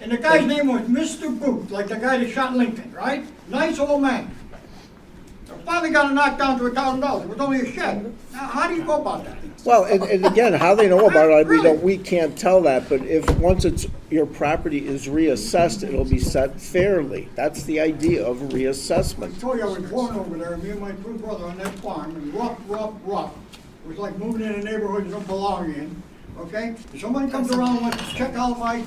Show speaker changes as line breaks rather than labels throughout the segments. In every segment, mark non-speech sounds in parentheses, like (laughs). And the guy's name was Mr. Booth, like the guy that shot Lincoln, right? Nice old man. Finally got it knocked down to a thousand dollars. It was only a shed. Now, how do you go about that?
Well, and, and again, how they know about it, we don't, we can't tell that, but if, once it's, your property is reassessed, it'll be set fairly. That's the idea of reassessment.
I told you I was born over there, me and my two brother on that farm, and rough, rough, rough. It was like moving in a neighborhood you don't belong in, okay? If Somebody comes around, wants to check out my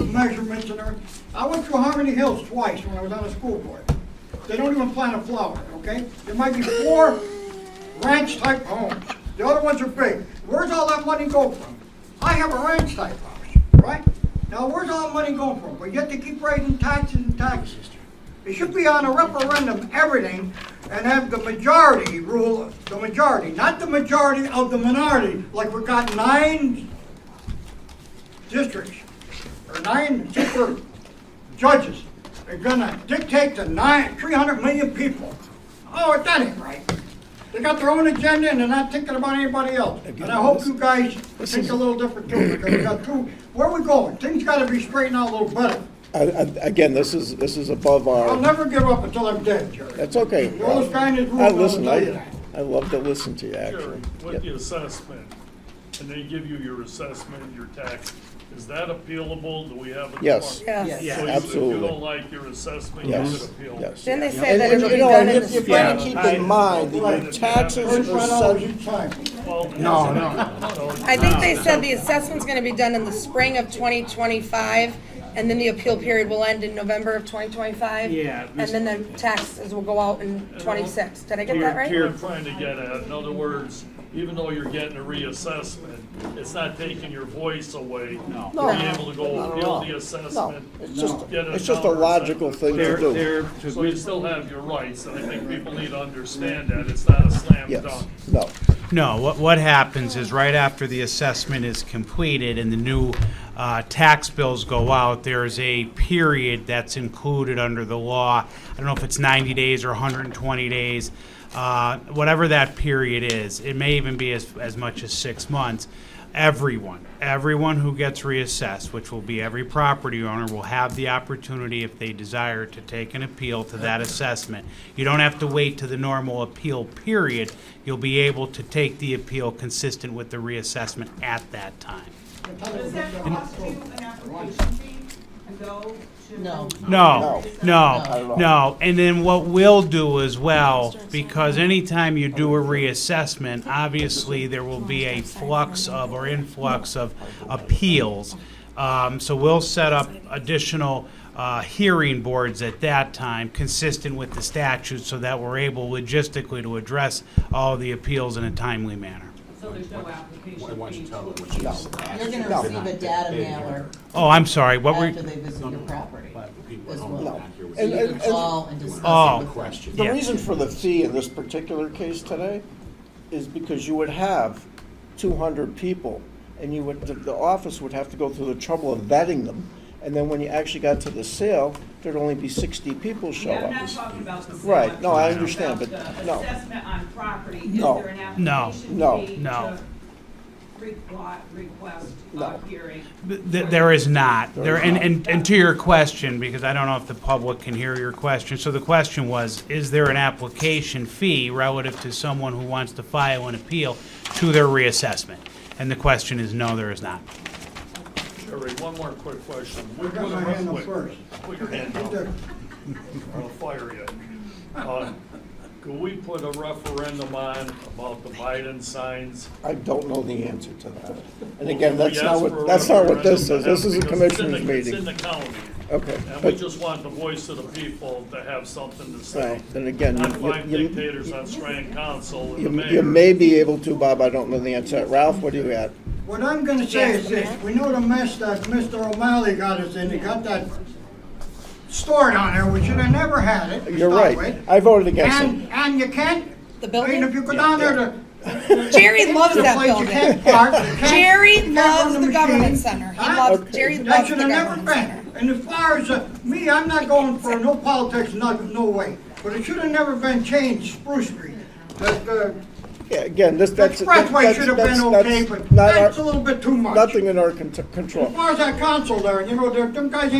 measurements and everything. I went through Harmony Hills twice when I was on the school board. They don't even plant a flower, okay? There might be four ranch-type homes. The other ones are big. Where's all that money go from? I have a ranch-type house, right? Now, where's all the money going from? But yet they keep raising taxes and taxes. It should be on a referendum, everything, and have the majority rule, the majority, not the majority of the minority, like we've got nine districts, or nine super judges. They're gonna dictate to nine, three hundred million people. Oh, that ain't right. They got their own agenda and they're not thinking about anybody else. And I hope you guys think a little different too, because we got two, where we going? Things gotta be straightened out a little better.
I- I- Again, this is, this is above
I'll
our,
never give up until I'm dead, Jerry.
that's okay.
You're always trying to do
I
it,
listen,
I'll tell you
I,
that.
I love to listen to you,
Jerry,
actually.
with the assessment, and they give you your assessment, your tax, is that appealable? Do we have it?
Yes.
tomorrow?
Yes.
So you- If
Absolutely.
you don't like your assessment, you can
Yes,
appeal.
yes.
Then they say
And,
that
and,
it'll
you
be
know,
done
and
in
if
the
you're trying to
spring.
keep in mind that your
Right.
taxes are
Thirty-five dollars
set,
each time.
No, no.
I think they
Ah.
said the assessment's gonna be done in the spring of twenty twenty-five, and then the appeal period will end in November of twenty twenty-five.
Yeah,
And then the taxes will go out in
Uh,
twenty-six. Did I get that right?
I'm trying to get at, in other words, even though you're getting a reassessment, it's not taking your voice away. No.
No.
Being able to go appeal the assessment.
it's just,
get a
it's just a
dollar
logical
assessment.
thing to
They're,
do.
they're,
So you still have your rights, and I think people need to understand that, it's not a slam
Yes,
dunk.
no.
No, what, what happens is right after the assessment is completed and the new uh, tax bills go out, there's a period that's included under the law. I don't know if it's 90 days or 120 days, uh, whatever that period is. It may even be as, as much as six months. Everyone, everyone who gets reassessed, which will be every property owner, will have the opportunity, if they desire, to take an appeal to that assessment. You don't have to wait to the normal appeal period. You'll be able to take the appeal consistent with the reassessment at that time.
Does that cost you an application fee to go to? No.
No, no, no. And then what we'll do as well, because anytime you do a reassessment, obviously there will be a flux of or influx of appeals. Um, so we'll set up additional, uh, hearing boards at that time, consistent with the statute, so that we're able logistically to address all the appeals in a timely manner.
So there's no application fee to
You're gonna receive a data mailer
Oh, I'm sorry, what were,
after they visit your property. as well. So
And-
you
and-
can call and discuss
Oh.
it with them.
The
Yeah.
reason for the fee in this particular case today is because you would have two hundred people, and you would, the, the office would have to go through the trouble of vetting them, and then when you actually got to the sale, there'd only be sixty people show
Yeah, I'm not
up.
talking about the. sale.
Right, no, I
I'm talking
understand,
about
but
the
no.
Assessment on property, is
No,
there an
no,
application
no,
fee
no.
to requi- request,
No.
uh, hearing?
Th- th- There is not. There, and, and, and to your question, because I don't know if the public can hear your question, so the question was, is there an application fee relative to someone who wants to file an appeal to their reassessment? And the question is, no, there is not.
Jerry, one more quick question.
I got my hand up first.
Put your hand up. I'll fire you. Uh, Could we put a referendum on about the Biden signs?
I don't know the answer to that. And
Well,
again,
we
that's
asked
not
for
what,
a
that's not what this is.
referendum
This is a
because it's in
commissioners
the- It's in
meeting.
the county,
Okay,
and we
but,
just want the voice of the people to have something to say.
right, then again,
Not
you-
five
you,
dictators on Strand Council and the
you,
mayor.
you may be able to, Bob, I don't know the answer. Ralph, what do you got?
What I'm gonna say is this, we know the mess that Mr. O'Malley got us in, he got that store down there, we should have never had it. to
You're
start
right.
with.
I voted against it.
And, and you can't,
The
I mean, if
building?
you go down there to.
Jerry loves
the
that
place, You
building.
can't park, you
(laughs)
can't.
Jerry
you can't
loves
run
the government
machine.
center. He
Huh?
loves, Jerry
That
loves the
should have never
government center.
been. And as far as, uh, me, I'm not going for no politics, not, no way. But it should have never been changed, Spruce Street. But, uh,
Yeah, again, this,
the
that's.
expressway
that's-
should have
that's-
been
that's
okay, but
not our-
that's a little bit too much.
Nothing in our cont- control.
As far as that council there, you know, there- them guys ain't